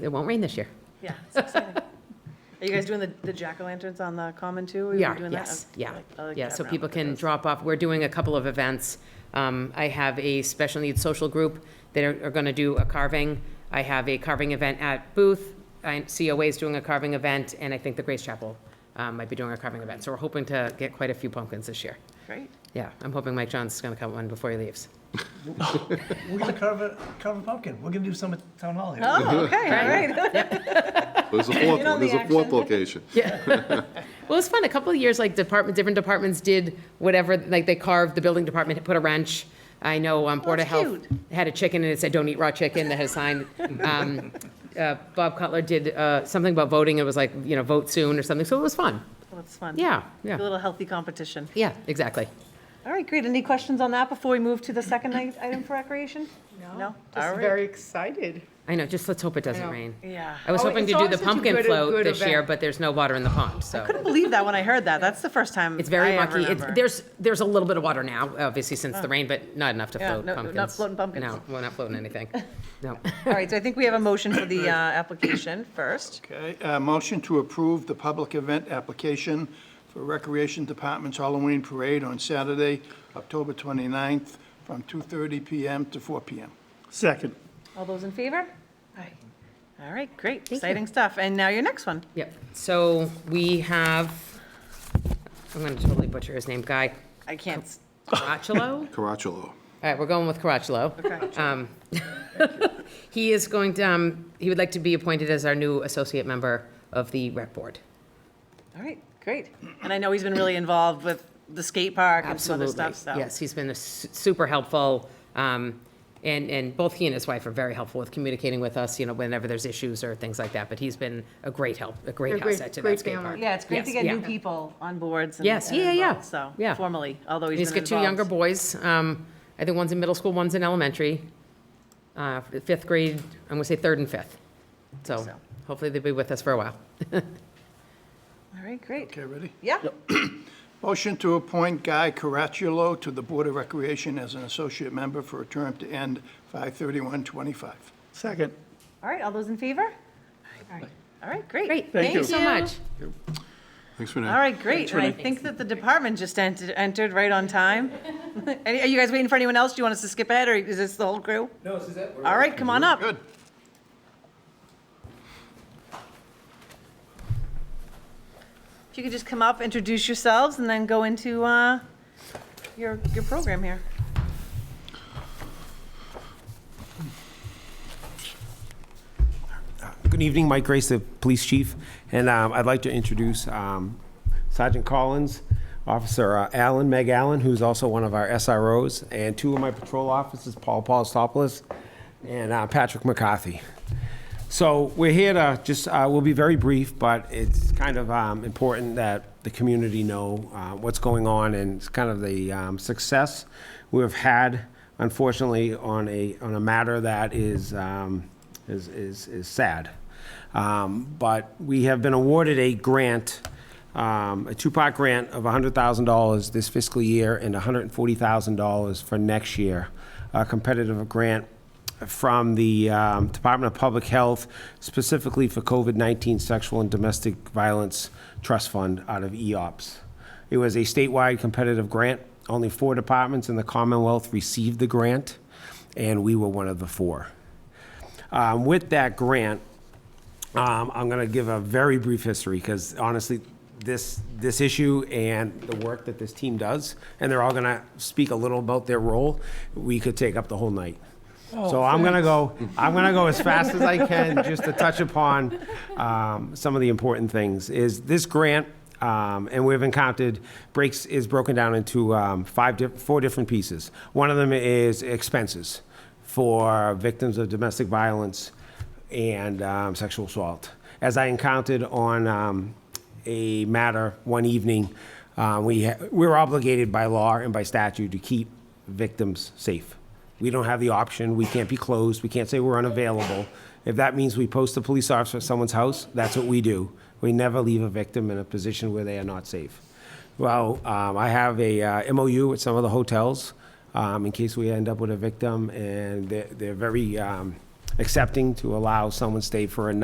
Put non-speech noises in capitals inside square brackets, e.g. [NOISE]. It won't rain this year. Yeah, it's exciting. Are you guys doing the, the jack-o'-lanterns on the common too? Are We you are, Oh, doing that? yes, Okay, I yeah. like- I like Yeah, that so round people with the can goats. drop off. We're doing a couple of events. Um, I have a special needs social group that are, going to do a carving. I have a carving event at Booth. I, COA is doing a carving event, and I think the Grace Chapel, um, might be doing a carving event. So we're hoping to get quite a few pumpkins this year. Great. Yeah, I'm hoping Mike John's going to cut one before he leaves. We're gonna carve a, carve a pumpkin. We're gonna do some at town hall here. Oh, okay, all right. [LAUGHS] There's a fourth In on one, there's the a fourth action. location. Well, it's fun. A couple of years, like department, different departments did whatever, like they carved, the building department put a wrench. I know um, Board of that's Health had a chicken and it said, don't eat raw chicken, that had a sign. Um, uh, Bob Cutler did uh, something about voting. It was like, you know, vote soon or something. So it was fun. [LAUGHS] Well, it's fun. Yeah, A yeah, little healthy competition. yeah, exactly. All right, great. Any questions on that before we move to the second i- item for recreation? No? All Just right. very excited. I know, just let's hope it doesn't know. rain. Yeah. I was Oh, hoping to it's do always the such a pumpkin good- float good this year, event. but there's no water in the pond, so. Believe that when I heard that. That's the first time It's very I ever mucky. It's, remember. there's, there's a little bit of water now, obviously since the rain, but not enough to Yeah, float no- not pumpkins. floating pumpkins. No, we're not floating anything. No. All right, so I think we have a motion [COUGHS] for the uh, application first. Okay, uh, motion to approve the public event application for Recreation Department's Halloween Parade on Saturday, October 29th, from 2:30 PM to 4 PM. Second. All those in favor? Aye. All right, great. Exciting stuff. And now your next one. Yep. So we have, I'm going to totally butcher his name, Guy I can't, s- Caracciolo? Caracciolo. All right, we're going with Caracciolo. Um, He is going to, um, he would like to be appointed as our new associate member of the rec board. all right, great. And I know he's been really involved with the skate park and some other stuff, so. Yes, he's been a su- super helpful, um, and, and both he and his wife are very helpful with communicating with us, you know, whenever there's issues or things like that, but he's been a great help, a They're great great- asset to that great skate family. park. Yeah, it's great to Yes, get new yeah. people on boards. and- Yes, and yeah, yeah, involved, So, yeah. formally, although he's He's been got two younger involved. boys, um, I think one's in middle school, one's in elementary, uh, fifth grade, I'm gonna say third and fifth. So so. hopefully they'll be with us for a while. All right, great. Okay, ready? Yeah, Motion to appoint Guy Caracciolo to the Board of Recreation as an associate member for a term to end 5/31/25. Second. all right, all those in favor? All right, great. Great, thank you so much. Thanks for All that. right, great. And I think that the department just entered, entered right on time. [LAUGHS] Any- Are you guys waiting for anyone else? Do you want us to skip ahead, or is this the whole crew? No, this is it. All right, come on up. Good. If you could just come up, introduce yourselves, and then go into uh, your, your program here. Good evening, Mike Grace, the police chief, and um, I'd like to introduce um, Sergeant Collins, Officer uh, Allen, Meg Allen, who's also one of our SROs, and two of my patrol officers, Paul Paulistopoulos and uh, Patrick McCarthy. So we're here to just, uh, we'll be very brief, but it's kind of um, important that the community know uh, what's going on and it's kind of the um, success we've had, unfortunately, on a, on a matter that is, um, is, is is sad. Um, But we have been awarded a grant, um, a two-part grant of $100,000 this fiscal year and $140,000 for next year, a competitive grant from the um, Department of Public Health, specifically for COVID-19 Sexual and Domestic Violence Trust Fund out of E EOPS. It was a statewide competitive grant. Only four departments in the Commonwealth received the grant, and we were one of the four. Um, With that grant, um, I'm going to give a very brief history because honestly, this, this issue and the work that this team does, and they're all going to speak a little about their role, we could take up the whole night. So I'm going to go, I'm going to go as fast as I can just to touch upon um, some of the important things. Is this grant, um, and we've encountered, breaks, is broken down into um, five, di- four different pieces. One of them is expenses for victims of domestic violence and um, sexual assault. As I encountered on um, a matter one evening, uh, we ha- we're obligated by law and by statute to keep victims safe. We don't have the option. We can't be closed. We can't say we're unavailable. If that means we post a police officer at someone's house, that's what we do. We never leave a victim in a position where they are not safe. Well, um, I have a uh, MOU with some of the hotels um, in case we end up with a victim, and they're, they're very um, accepting to allow someone stay for a night.